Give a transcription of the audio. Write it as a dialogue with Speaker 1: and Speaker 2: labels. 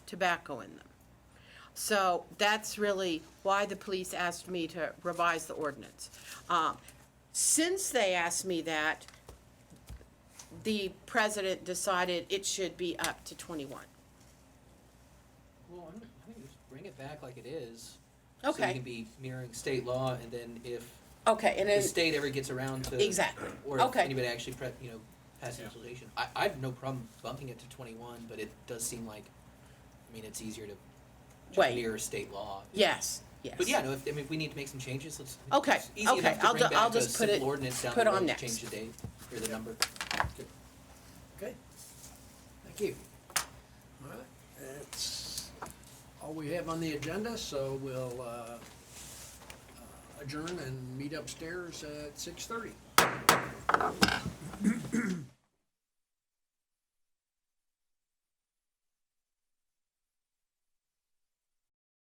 Speaker 1: tobacco in them. So that's really why the police asked me to revise the ordinance. Um, Since they asked me that, the president decided it should be up to 21.
Speaker 2: Well, I'm, I think you just bring it back like it is. So
Speaker 1: Okay.
Speaker 2: you can be mirroring state law, and then if
Speaker 1: Okay, and
Speaker 2: the
Speaker 1: then,
Speaker 2: state ever gets around to.
Speaker 1: Exactly.
Speaker 2: Or if
Speaker 1: Okay.
Speaker 2: anybody actually, pre- you know, passes legislation. I, I have no problem bumping it to twenty-one, but it does seem like, I mean, it's easier to
Speaker 1: Wait.
Speaker 2: just mirror state law.
Speaker 1: yes, yes.
Speaker 2: But yeah, no, if, I mean, if we need to make some changes, let's.
Speaker 1: Okay,
Speaker 2: it's easy
Speaker 1: okay,
Speaker 2: enough to
Speaker 1: I'll
Speaker 2: bring
Speaker 1: ju- I'll
Speaker 2: back a
Speaker 1: just put
Speaker 2: simple
Speaker 1: it-
Speaker 2: ordinance down
Speaker 1: put
Speaker 2: the
Speaker 1: on
Speaker 2: road to
Speaker 1: next.
Speaker 2: change the date or the number.
Speaker 3: Okay,
Speaker 2: Thank you.
Speaker 3: all right. That's all we have on the agenda, so we'll uh, adjourn and meet upstairs at 6:30.